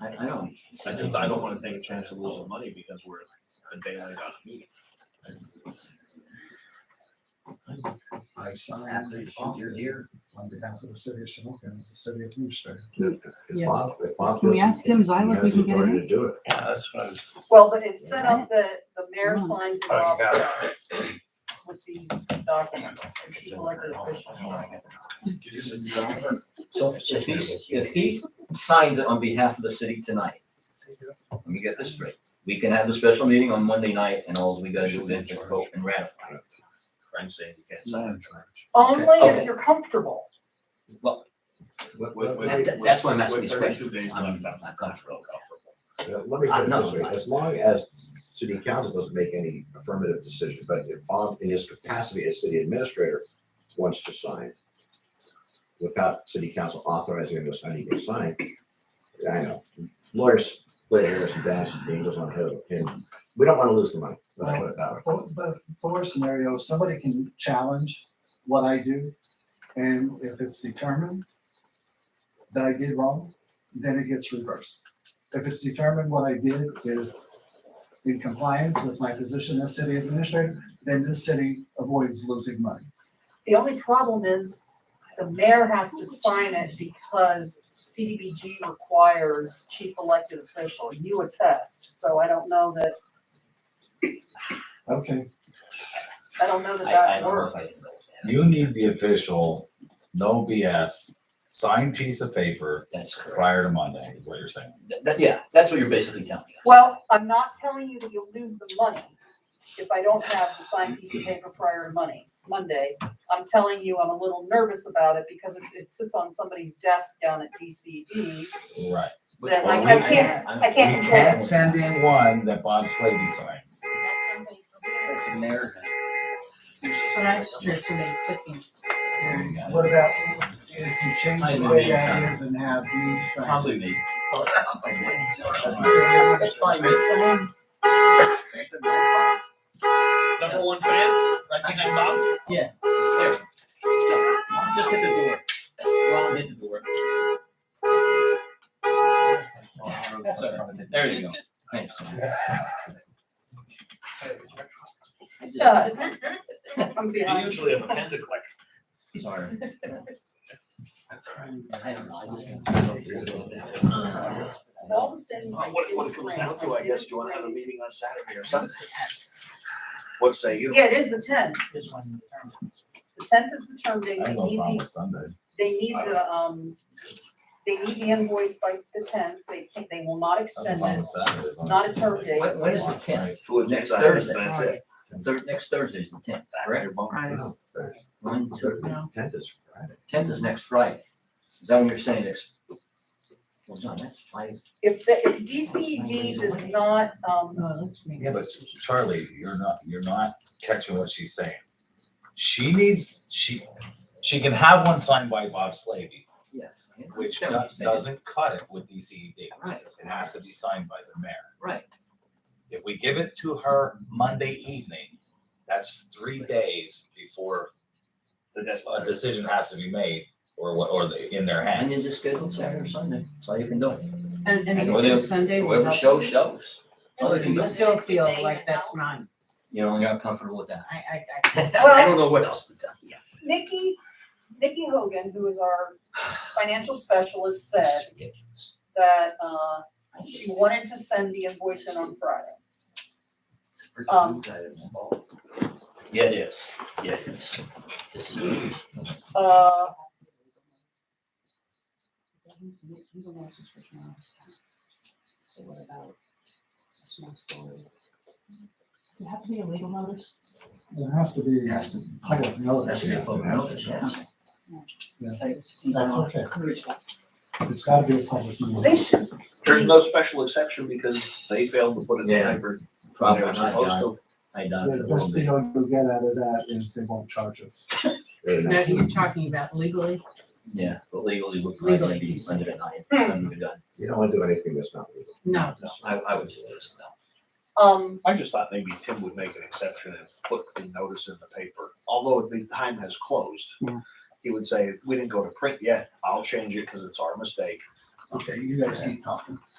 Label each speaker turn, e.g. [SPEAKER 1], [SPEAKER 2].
[SPEAKER 1] I, I don't,
[SPEAKER 2] I just, I don't wanna take a chance of losing money because we're a day late on a meeting.
[SPEAKER 3] I signed the offer here on behalf of the city of Shamokin as the city of Houston.
[SPEAKER 4] Yeah.
[SPEAKER 5] If Bob, if Bob
[SPEAKER 4] Can we
[SPEAKER 5] doesn't
[SPEAKER 4] ask Tim
[SPEAKER 5] get it,
[SPEAKER 4] Zyla if we
[SPEAKER 5] he has
[SPEAKER 4] can get it
[SPEAKER 5] authority
[SPEAKER 4] in?
[SPEAKER 5] to do it.
[SPEAKER 2] Yeah, that's what I was.
[SPEAKER 6] Well, but it's set up that the mayor signs
[SPEAKER 1] Oh,
[SPEAKER 6] it off with these documents, and she's elected official.
[SPEAKER 1] so if if he, if he signs it on behalf of the city tonight, let me get this straight. We can have the special meeting on Monday night and alls we gotta do is just vote and ratify it.
[SPEAKER 2] Friend saying you can't sign a charge.
[SPEAKER 6] Only
[SPEAKER 1] Okay.
[SPEAKER 6] if you're comfortable.
[SPEAKER 1] Well,
[SPEAKER 5] Let- let-
[SPEAKER 3] With- with-
[SPEAKER 1] that- that- that's why I'm asking
[SPEAKER 2] With
[SPEAKER 1] these
[SPEAKER 2] thirty-two
[SPEAKER 1] questions.
[SPEAKER 2] days
[SPEAKER 1] I'm
[SPEAKER 2] left,
[SPEAKER 1] not
[SPEAKER 2] I'm not
[SPEAKER 1] comfortable.
[SPEAKER 2] comfortable, comfortable.
[SPEAKER 5] Let let me
[SPEAKER 1] I
[SPEAKER 5] put it
[SPEAKER 1] know,
[SPEAKER 5] this way,
[SPEAKER 1] I-
[SPEAKER 5] as long as city council doesn't make any affirmative decision, but if Bob in his capacity as city administrator wants to sign without city council authorizing him to sign, he can sign. I know, lawyers play hairs and dance and angels on head of a pin. We don't want to lose the money. Let's put it that way.
[SPEAKER 3] But, but for scenario, somebody can challenge what I do, and if it's determined that I did wrong, then it gets reversed. If it's determined what I did is in compliance with my position as city administrator, then this city avoids losing money.
[SPEAKER 6] The only problem is the mayor has to sign it because CDBG requires chief elected official, you attest, so I don't know that,
[SPEAKER 3] Okay,
[SPEAKER 6] I don't know that
[SPEAKER 1] I, I
[SPEAKER 6] that
[SPEAKER 1] don't know if I
[SPEAKER 6] works.
[SPEAKER 1] can vote that.
[SPEAKER 7] You need the official, no BS, signed piece of paper
[SPEAKER 1] That's correct.
[SPEAKER 7] prior to Monday, is what you're saying.
[SPEAKER 1] That- that- yeah, that's what you're basically telling us.
[SPEAKER 6] Well, I'm not telling you that you'll lose the money if I don't have the signed piece of paper prior to money, Monday. I'm telling you, I'm a little nervous about it because if it sits on somebody's desk down at E. DCD,
[SPEAKER 7] Right.
[SPEAKER 1] Which
[SPEAKER 6] then
[SPEAKER 1] one
[SPEAKER 7] I-
[SPEAKER 1] we
[SPEAKER 7] I
[SPEAKER 1] can-
[SPEAKER 6] can't-
[SPEAKER 1] I'm-
[SPEAKER 6] I
[SPEAKER 7] We
[SPEAKER 6] can't control
[SPEAKER 7] can't send in one that Bob Slavy signs.
[SPEAKER 1] That's the mayor.
[SPEAKER 4] But I just heard somebody clicking.
[SPEAKER 7] You got it.
[SPEAKER 3] what about if you change the way that is and have me sign?
[SPEAKER 1] Probably me.
[SPEAKER 3] as the city administrator?
[SPEAKER 1] That's fine, miss.
[SPEAKER 2] Number one fan, right behind Bob?
[SPEAKER 1] Just hit the door. Well, hit the door. That's all right. There you go. Thanks. I just-
[SPEAKER 6] Yeah. I'm
[SPEAKER 2] I
[SPEAKER 6] behind.
[SPEAKER 2] usually have a pen to click.
[SPEAKER 1] Sorry. I don't know, I just-
[SPEAKER 6] All the things I
[SPEAKER 2] Well, uh, What, what it
[SPEAKER 6] didn't
[SPEAKER 2] comes
[SPEAKER 6] print,
[SPEAKER 2] down to, I guess, do you wanna have a
[SPEAKER 6] didn't print.
[SPEAKER 2] meeting on Saturday or Sunday? What say you?
[SPEAKER 6] Yeah, it is the tenth. The tenth is the term date.
[SPEAKER 7] I
[SPEAKER 6] They
[SPEAKER 7] have no
[SPEAKER 6] need
[SPEAKER 7] problem
[SPEAKER 6] the,
[SPEAKER 7] with Sunday.
[SPEAKER 6] they need the, um, they need the invoice by the tenth. They can't, they will not
[SPEAKER 7] I have
[SPEAKER 6] extend
[SPEAKER 7] no problem
[SPEAKER 6] it.
[SPEAKER 7] with Saturday. as long
[SPEAKER 6] Not
[SPEAKER 7] as
[SPEAKER 6] a term
[SPEAKER 7] it's
[SPEAKER 6] date.
[SPEAKER 7] like-
[SPEAKER 1] When- when is the tenth?
[SPEAKER 2] To
[SPEAKER 1] Next Thursday.
[SPEAKER 2] That's it.
[SPEAKER 1] Thir- next Thursday is the tenth, correct?
[SPEAKER 5] No, there's-
[SPEAKER 1] One, two,
[SPEAKER 5] Tenth is Friday.
[SPEAKER 1] tenth is next Friday. Is that when you're saying next? Well, John, that's five.
[SPEAKER 6] If, the- if DCD does not, um,
[SPEAKER 4] Oh, let's make
[SPEAKER 7] Yeah, but Charlie, you're not, you're not catching what she's saying. She needs, she, she can have one signed by Bob Slavy,
[SPEAKER 1] Yes.
[SPEAKER 7] which do- doesn't cut it with E DCED.
[SPEAKER 1] Right,
[SPEAKER 7] It has to be signed by the mayor.
[SPEAKER 1] right.
[SPEAKER 7] If we give it to her Monday evening, that's three days before
[SPEAKER 2] The
[SPEAKER 7] a
[SPEAKER 2] deadline.
[SPEAKER 7] decision has to be made or what, or the, in their
[SPEAKER 1] And you
[SPEAKER 7] hands.
[SPEAKER 1] just schedule Saturday or Sunday. That's all you can do.
[SPEAKER 4] And, and
[SPEAKER 1] And
[SPEAKER 4] you
[SPEAKER 1] whether-
[SPEAKER 4] think Sunday will
[SPEAKER 1] Whoever
[SPEAKER 4] help
[SPEAKER 1] shows,
[SPEAKER 4] you?
[SPEAKER 1] shows. That's all you can
[SPEAKER 4] You
[SPEAKER 1] do.
[SPEAKER 4] still feel like that's not,
[SPEAKER 1] You know, you're not comfortable with that.
[SPEAKER 4] I, I, I.
[SPEAKER 1] I don't know what else to tell you.
[SPEAKER 6] Nikki, Nikki Hogan, who is our financial
[SPEAKER 1] This
[SPEAKER 6] specialist, said
[SPEAKER 1] is ridiculous.
[SPEAKER 6] that, uh,
[SPEAKER 1] I just-
[SPEAKER 6] she wanted to send the invoice in on Friday.
[SPEAKER 1] it's a freaking
[SPEAKER 6] um,
[SPEAKER 1] news item, it's all- Yeah, it is. Yeah, it is. This is.
[SPEAKER 6] Uh,
[SPEAKER 4] So what about a small story? Does it have to be a legal notice?
[SPEAKER 3] There has to be
[SPEAKER 1] Has to-
[SPEAKER 3] public notice.
[SPEAKER 1] That's a public notice, yes.
[SPEAKER 3] That's okay. It's gotta be a public
[SPEAKER 6] they
[SPEAKER 3] notice.
[SPEAKER 6] should,
[SPEAKER 2] There's no special exception because they failed to put it in
[SPEAKER 1] Yeah.
[SPEAKER 2] paper. They
[SPEAKER 1] Probably
[SPEAKER 2] were
[SPEAKER 1] not,
[SPEAKER 2] supposed
[SPEAKER 1] John.
[SPEAKER 2] to.
[SPEAKER 1] I doubt it a
[SPEAKER 3] The
[SPEAKER 1] little
[SPEAKER 3] best
[SPEAKER 1] bit.
[SPEAKER 3] deal you'll get out of that is they won't charge us.
[SPEAKER 5] Very
[SPEAKER 4] No,
[SPEAKER 5] nice.
[SPEAKER 4] you're talking about legally,
[SPEAKER 1] Yeah, but legally, we're probably
[SPEAKER 4] Legally,
[SPEAKER 1] be
[SPEAKER 4] you said.
[SPEAKER 1] under at nine. I'm done.
[SPEAKER 5] You don't want to do anything that's not legal.
[SPEAKER 4] no.
[SPEAKER 1] No, I, I would do this, no.
[SPEAKER 6] um,
[SPEAKER 2] I just thought maybe Tim would make an exception and put the notice in the paper, although the time has closed.
[SPEAKER 4] Yeah.
[SPEAKER 2] He would say, we didn't go to print yet, I'll change it because it's our mistake.
[SPEAKER 3] Okay, you guys keep talking.